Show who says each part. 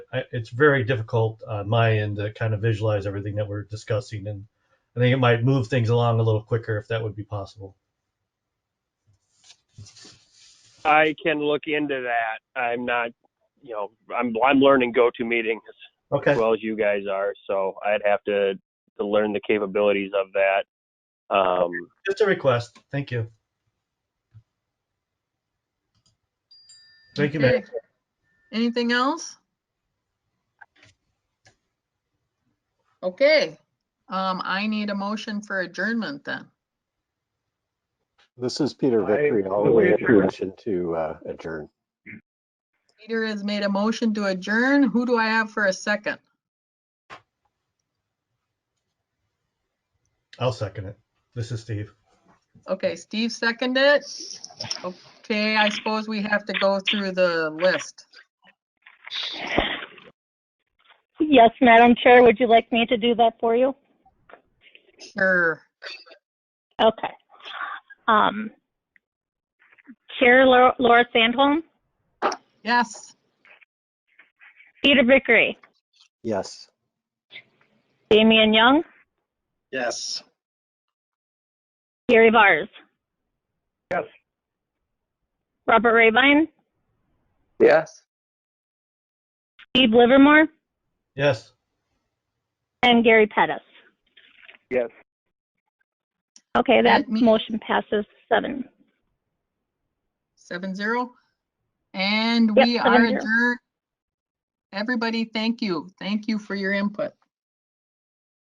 Speaker 1: I, it's very difficult on my end to kind of visualize everything that we're discussing, and I think it might move things along a little quicker if that would be possible.
Speaker 2: I can look into that. I'm not, you know, I'm I'm learning GoToMeeting as
Speaker 1: Okay.
Speaker 2: well as you guys are, so I'd have to to learn the capabilities of that. Um,
Speaker 1: Just a request. Thank you. Thank you, Matt.
Speaker 3: Okay. Anything else? Okay, um, I need a motion for adjournment then.
Speaker 4: This is Peter
Speaker 5: I
Speaker 4: Vickery, all the
Speaker 5: move
Speaker 4: way up
Speaker 5: adjourn.
Speaker 4: motion to uh, adjourn.
Speaker 3: Peter has made a motion to adjourn. Who do I have for a second?
Speaker 1: I'll second it. This is Steve.
Speaker 3: Okay, Steve seconded it. Okay, I suppose we have to go through the list.
Speaker 6: Yes, Madam Chair, would you like me to do that for you?
Speaker 3: Sure.
Speaker 6: Okay. Um, Chair Lau- Laura Sandholm,
Speaker 3: Yes,
Speaker 6: Peter Vickery,
Speaker 4: Yes.
Speaker 6: Damian Young,
Speaker 5: Yes.
Speaker 6: Gary Vars.
Speaker 5: Yes.
Speaker 6: Robert Rabine,
Speaker 5: Yes.
Speaker 6: Steve Livermore,
Speaker 1: Yes.
Speaker 6: and Gary Pettis.
Speaker 5: Yes.
Speaker 6: Okay, that
Speaker 3: Let me-
Speaker 6: motion passes seven.
Speaker 3: seven zero. And
Speaker 6: Yep,
Speaker 3: we are
Speaker 6: 7-0.
Speaker 3: adjourned. Everybody, thank you. Thank you for your input.